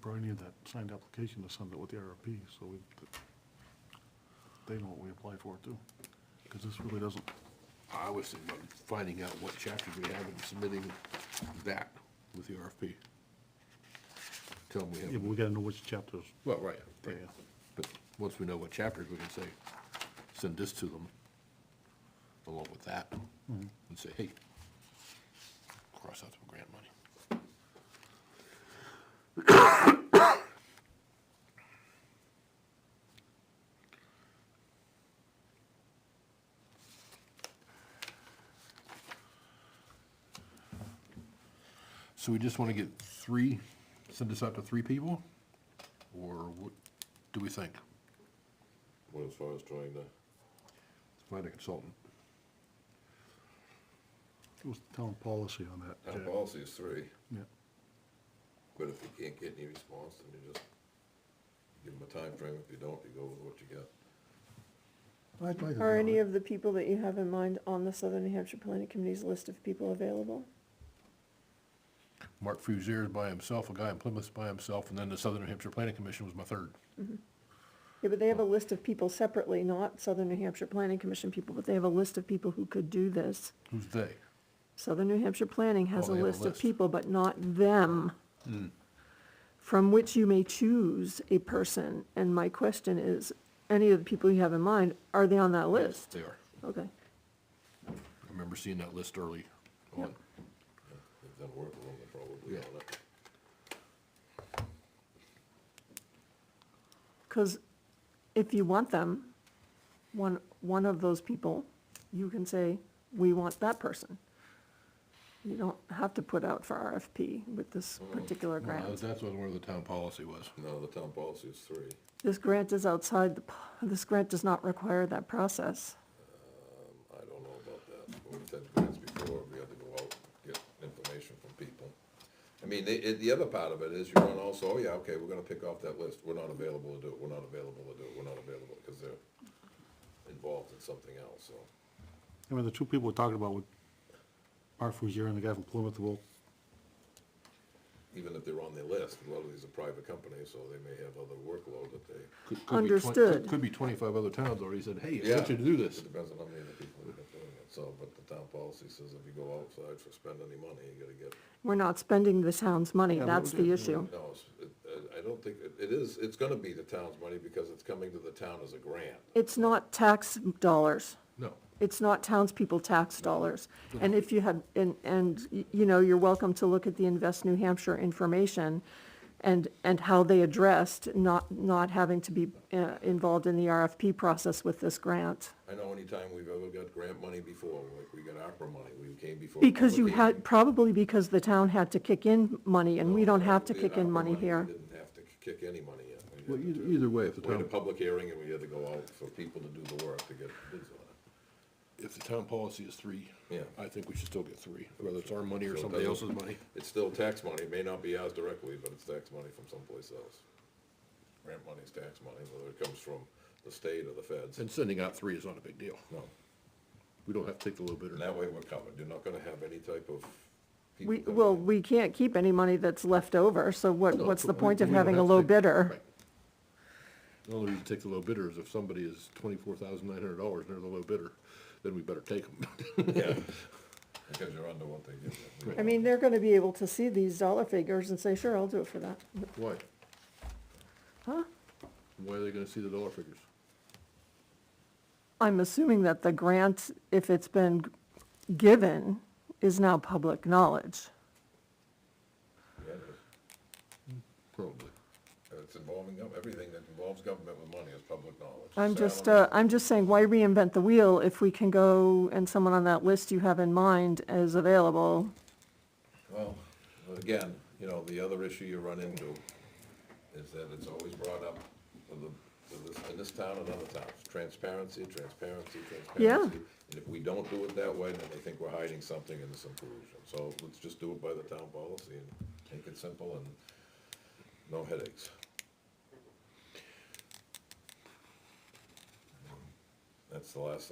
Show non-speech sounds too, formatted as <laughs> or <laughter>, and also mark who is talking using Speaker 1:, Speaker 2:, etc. Speaker 1: Brian had that signed application to send it with the RFP, so we, they know what we apply for too. Because this really doesn't,
Speaker 2: I was thinking about finding out what chapters we have and submitting that with the RFP. Tell them we
Speaker 1: yeah, but
Speaker 2: have,
Speaker 1: we gotta know which chapters.
Speaker 2: well, right,
Speaker 1: Yeah,
Speaker 2: right. But once we know what chapters, we can say, send this to them along with that and say, hey, cross out some grant money. So we just want to get three, send this out to three people? Or what do we think?
Speaker 3: Well, as far as drawing the,
Speaker 2: Find a consultant.
Speaker 1: It was town policy on that,
Speaker 3: our
Speaker 1: Jack.
Speaker 3: policy is three,
Speaker 1: Yeah,
Speaker 3: but if we can't get any response, then you just give them a time frame. If you don't, you go with what you got.
Speaker 1: I'd like to
Speaker 4: Are
Speaker 1: know
Speaker 4: any
Speaker 1: it.
Speaker 4: of the people that you have in mind on the Southern New Hampshire Planning Committee's list of people available?
Speaker 2: Mark Fuzier is by himself, a guy in Plymouth is by himself, and then the Southern New Hampshire Planning Commission was my third.
Speaker 4: Yeah, but they
Speaker 2: Oh.
Speaker 4: have a list of people separately, not Southern New Hampshire Planning Commission people, but they have a list of people who could do this.
Speaker 2: Who's they?
Speaker 4: Southern New Hampshire Planning has
Speaker 2: Oh,
Speaker 4: a
Speaker 2: they have a
Speaker 4: list of
Speaker 2: list. Hmm.
Speaker 4: people, but not them, from which you may choose a person. And my question is, any of the people you have in mind, are they on that list?
Speaker 2: They are.
Speaker 4: Okay.
Speaker 2: I remember seeing that list early on.
Speaker 3: They've done work along it probably
Speaker 2: Yeah.
Speaker 3: on it.
Speaker 4: Because if you want them, one, one of those people, you can say, we want that person. You don't have to put out for RFP with this particular
Speaker 2: Well,
Speaker 4: grant.
Speaker 2: That's what where the town policy was.
Speaker 3: No, the town policy is three.
Speaker 4: This grant is outside, the p- this grant does not require that process.
Speaker 3: I don't know about that. But We've had grants before, we had to go out, get information from people. I mean, the, it- the other part of it is you run also, oh yeah, okay, we're gonna pick off that list. We're not available to do it, we're not available to do it, we're not available, because they're involved in something else, so.
Speaker 1: I mean, the two people we're talking about with Mark Fuzier and the guy from Plymouth, well,
Speaker 3: Even if they're on the list, a lot of these are private companies, so they may have other workload that they.
Speaker 2: Could- could be twen- could-
Speaker 4: Understood.
Speaker 2: Could be twenty-five other towns already said, hey, I
Speaker 3: Yeah,
Speaker 2: want you to do this.
Speaker 3: It depends on how many of the people that are doing it, so, but the town policy says if you go outside for spend any money, you gotta get,
Speaker 4: We're not spending the town's money,
Speaker 1: Yeah, but
Speaker 4: that's
Speaker 1: we-
Speaker 4: the issue.
Speaker 3: no, it's- it- I- I don't think, it- it is, it's gonna be the town's money because it's coming to the town as a grant.
Speaker 4: It's not tax dollars.
Speaker 2: No,
Speaker 4: it's not townspeople tax dollars. And if you had, and, and, y- you know, you're welcome to look at the Invest New Hampshire information and, and how they addressed not, not having to be uh, involved in the RFP process with this grant.
Speaker 3: I know anytime we've ever got grant money before, like we got ARPA money, we came before.
Speaker 4: Because you
Speaker 3: public
Speaker 4: had,
Speaker 3: hearing.
Speaker 4: probably because the town had to kick in money, and we don't have to
Speaker 3: We had
Speaker 4: kick in
Speaker 3: ARPA
Speaker 4: money here.
Speaker 3: We didn't have to kick any money in.
Speaker 2: well,
Speaker 3: We had
Speaker 2: either,
Speaker 3: to
Speaker 2: either way, if the
Speaker 3: wait a
Speaker 2: town,
Speaker 3: public hearing and we had to go out for people to do the work to get bids on it.
Speaker 2: if the town policy is three,
Speaker 3: Yeah.
Speaker 2: I think we should still get three, whether it's our money or
Speaker 3: So it
Speaker 2: somebody else's
Speaker 3: doesn't-
Speaker 2: money.
Speaker 3: It's still tax money, it may not be ours directly, but it's tax money from someplace else. Grant money is tax money, whether it comes from the state or the feds,
Speaker 2: And sending out three is not a big deal.
Speaker 3: no.
Speaker 2: We don't have to take the low bidder.
Speaker 3: And that way we're covered, you're not gonna have any type of. people
Speaker 4: We,
Speaker 3: coming
Speaker 4: well,
Speaker 3: in.
Speaker 4: we can't keep any money that's left over, so what,
Speaker 2: No,
Speaker 4: what's the
Speaker 2: we-
Speaker 4: point of
Speaker 2: we don't
Speaker 4: having a
Speaker 2: have to
Speaker 4: low
Speaker 2: take-
Speaker 4: bidder?
Speaker 2: Right. The only reason to take the low bidder is if somebody is twenty-four thousand nine hundred dollars and they're the low bidder, then we better take them.
Speaker 3: Yeah, because you're under what they give you.
Speaker 4: I mean, they're gonna be able to see these dollar figures and say, sure, I'll do it for that.
Speaker 2: <laughs> Why?
Speaker 4: Huh?
Speaker 2: Why are they gonna see the dollar figures?
Speaker 4: I'm assuming that the grant, if it's been g- given, is now public knowledge.
Speaker 3: Yeah, it-
Speaker 2: Probably.
Speaker 3: It's involving, gov- everything that involves government with money is public knowledge.
Speaker 4: I'm just,
Speaker 3: Salary,
Speaker 4: uh, I'm just saying, why reinvent the wheel if we can go and someone on that list you have in mind is available?
Speaker 3: Well, again, you know, the other issue you run into is that it's always brought up in the- in this- in this town and other towns, transparency, transparency,
Speaker 4: Yeah.
Speaker 3: transparency. And if we don't do it that way, then they think we're hiding something in this inclusion. So let's just do it by the town policy and make it simple and no headaches. That's the last